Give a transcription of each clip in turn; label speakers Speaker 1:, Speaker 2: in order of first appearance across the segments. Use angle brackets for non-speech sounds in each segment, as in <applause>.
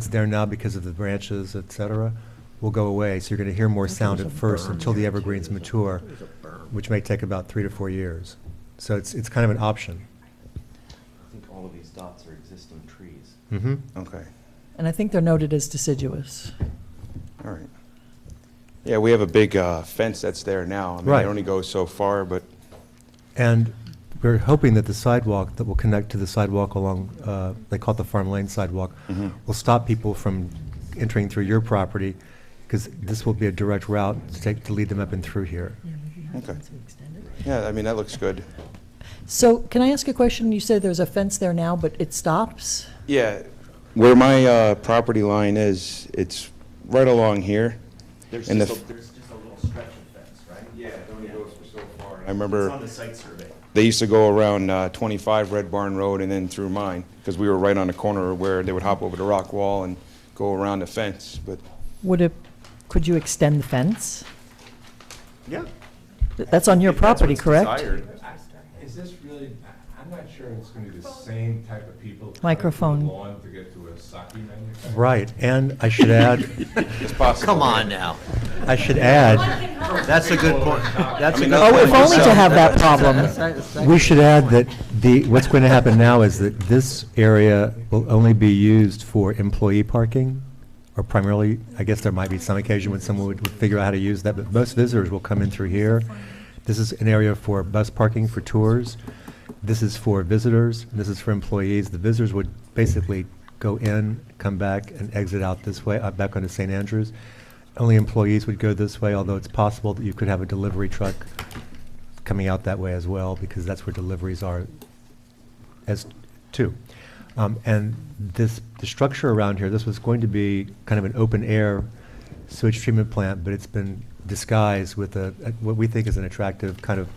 Speaker 1: It's there now because of the branches, et cetera, will go away, so you're gonna hear more sound at first until the evergreens mature, which may take about three to four years. So it's, it's kind of an option.
Speaker 2: I think all of these dots are existing trees.
Speaker 1: Mm-hmm.
Speaker 3: Okay,
Speaker 4: And I think they're noted as deciduous.
Speaker 3: all right. Yeah, we have a big uh, fence that's there now. I mean,
Speaker 1: Right.
Speaker 3: it only goes so far, but,
Speaker 1: And we're hoping that the sidewalk that will connect to the sidewalk along, uh, they call it the Farm Lane sidewalk,
Speaker 3: Mhm.
Speaker 1: will stop people from entering through your property, because this will be a direct route to take, to lead them up and through here.
Speaker 3: Okay. yeah, I mean, that looks good.
Speaker 4: So can I ask a question? You say there's a fence there now, but it stops?
Speaker 3: Yeah, where my uh, property line is, it's right along here.
Speaker 2: There's
Speaker 3: And
Speaker 2: just,
Speaker 3: the-
Speaker 2: a- there's just a little stretch of fence, right?
Speaker 3: Yeah, it only goes for so far. I
Speaker 2: It's
Speaker 3: remember
Speaker 2: on the site survey.
Speaker 3: they used to go around uh, 25 Red Barn Road and then through mine, because we were right on the corner where they would hop over the rock wall and go around the fence, but
Speaker 4: Would it, could you extend the fence?
Speaker 2: Yeah.
Speaker 4: Th- That's on your property, correct?
Speaker 5: Is this really, I- I'm not sure it's gonna be the same type of people. cutting
Speaker 4: Microphone.
Speaker 5: through the Lawn to get to a sake manufacturer.
Speaker 1: Right, and I should add,
Speaker 3: it's possible.
Speaker 6: Come on now.
Speaker 1: I should add,
Speaker 6: That's a good point. That's a good.
Speaker 3: Oh, if
Speaker 6: point.
Speaker 3: only to
Speaker 4: have that problem.
Speaker 1: We should add that the, what's going to happen now is that this area will only be used for employee parking, or primarily, I guess there might be some occasion when someone would would figure out how to use that, but most visitors will come in through here. This is an area for bus parking for tours. This is for visitors, and this is for employees. The visitors would basically go in, come back, and exit out this way, uh, back onto St. Andrews. Only employees would go this way, although it's possible that you could have a delivery truck coming out that way as well, because that's where deliveries are as two. Um, and this, the structure around here, this was going to be kind of an open air sewage treatment plant, but it's been disguised with a, a- what we think is an attractive kind of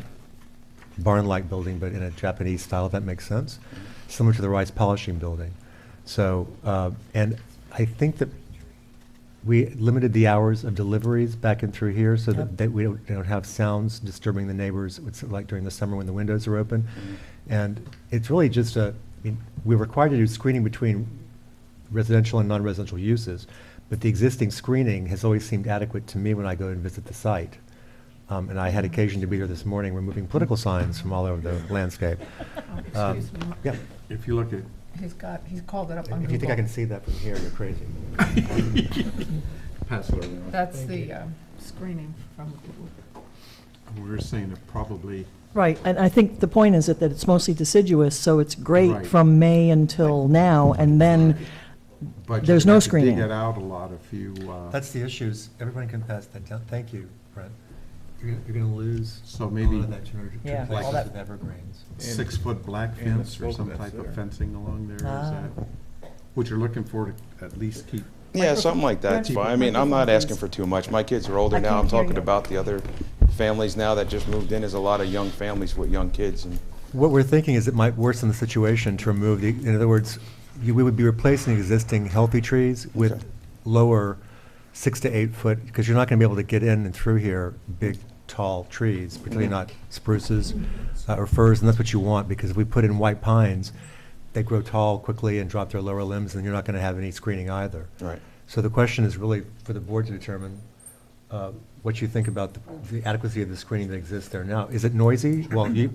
Speaker 1: barn-like building, but in a Japanese style, if that makes sense, similar to the rice polishing building. So, uh, and I think that we limited the hours of deliveries back and through here so that,
Speaker 4: Yep.
Speaker 1: that we don't, don't have sounds disturbing the neighbors, it's like during the summer when the windows are open. And it's really just a, I mean, we're required to do screening between residential and non-residential uses, but the existing screening has always seemed adequate to me when I go and visit the site. Um, and I had occasion to be here this morning removing political signs from all over the landscape. Um,
Speaker 7: Oh, Excuse me,
Speaker 1: Yeah,
Speaker 8: If you look at,
Speaker 7: he's got, he's called it up on
Speaker 1: if you think I
Speaker 7: Google.
Speaker 1: can see that from here, you're
Speaker 8: <laughs>
Speaker 1: crazy.
Speaker 8: pass it
Speaker 7: <laughs>
Speaker 8: around,
Speaker 7: That's the um, screening from Google.
Speaker 8: we were saying that probably,
Speaker 4: Right, and I think the point is that that it's mostly deciduous, so it's great
Speaker 8: Right.
Speaker 4: from May until now, and then,
Speaker 8: but
Speaker 4: There's
Speaker 8: you'd
Speaker 4: no
Speaker 8: have to
Speaker 4: screening.
Speaker 8: Dig it out a lot if you, uh,
Speaker 1: That's the issues, everyone can pass that down, thank you, Brent. You're, gonna- you're gonna lose
Speaker 8: So
Speaker 1: a lot
Speaker 8: maybe-
Speaker 1: of that, you're gonna
Speaker 4: Yeah,
Speaker 1: replace
Speaker 4: all
Speaker 1: it
Speaker 4: that-
Speaker 1: with evergreens.
Speaker 8: six-foot black
Speaker 5: and the
Speaker 8: fence or
Speaker 5: slope
Speaker 8: some
Speaker 5: that's
Speaker 8: type
Speaker 5: there.
Speaker 8: of fencing along there, is
Speaker 4: Ah.
Speaker 8: that what you're looking for to at least keep?
Speaker 3: Yeah, something like that. It's fine. I mean, I'm not asking for too much. My kids are older
Speaker 4: I
Speaker 3: now. I'm
Speaker 4: can't hear
Speaker 3: talking
Speaker 4: you.
Speaker 3: about the other families now that just moved in. There's a lot of young families with young kids and
Speaker 1: What we're thinking is it might worsen the situation to remove the, in other words, you, we would be replacing existing healthy trees
Speaker 3: Okay.
Speaker 1: with lower six to eight foot, because you're not gonna be able to get in and through here, big, tall trees, particularly not spruces uh, or firs, and that's what you want, because if we put in white pines, they grow tall quickly and drop their lower limbs, and you're not gonna have any screening either.
Speaker 3: Right.
Speaker 1: So the question is really for the board to determine uh, what you think about the- the adequacy of the screening that exists there now. Is it noisy? Well, you,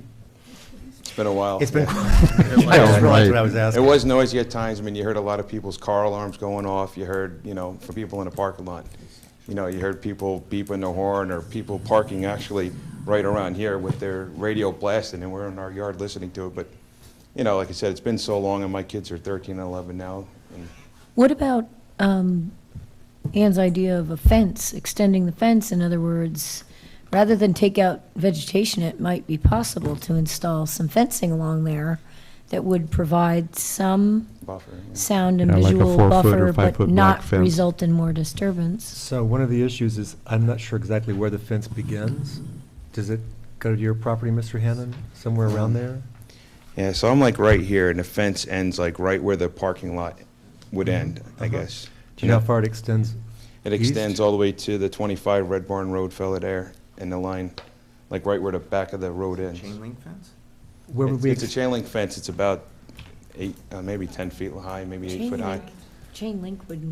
Speaker 3: it's been a while.
Speaker 1: it's been.
Speaker 3: Yeah.
Speaker 1: I just realized what I was
Speaker 3: It
Speaker 1: asking.
Speaker 3: was noisy at times. I mean, you heard a lot of people's car alarms going off. You heard, you know, for people in the parking lot. You know, you heard people beeping their horn or people parking actually right around here with their radio blasting and we're in our yard listening to it. But, you know, like I said, it's been so long and my kids are 13 and 11 now. and-
Speaker 9: What about um, Ann's idea of a fence, extending the fence? In other words, rather than take out vegetation, it might be possible to install some fencing along there that would provide some
Speaker 3: Buffer, yeah.
Speaker 9: sound and
Speaker 10: Yeah, like a
Speaker 9: visual
Speaker 10: four-foot or
Speaker 9: buffer, but
Speaker 10: five-foot block
Speaker 9: not
Speaker 10: fence.
Speaker 9: result in more disturbance.
Speaker 1: So one of the issues is, I'm not sure exactly where the fence begins. Does it go to your property, Mr. Hannon, somewhere around
Speaker 3: Hmm.
Speaker 1: there?
Speaker 3: Yeah, so I'm like right here, and the fence ends like right where the parking lot would end, I
Speaker 1: Uh-huh.
Speaker 3: guess.
Speaker 1: Do you know how far it extends?
Speaker 3: It
Speaker 1: east?
Speaker 3: extends all the way to the 25 Red Barn Road, fella there, and the line, like right where the back of the road ends.
Speaker 2: Chain link fence?
Speaker 1: Where would
Speaker 3: It's-
Speaker 1: we,
Speaker 3: It's a
Speaker 1: ex-
Speaker 3: chain link fence, it's about eight, uh, maybe 10 feet high, maybe eight foot high.
Speaker 9: chain link would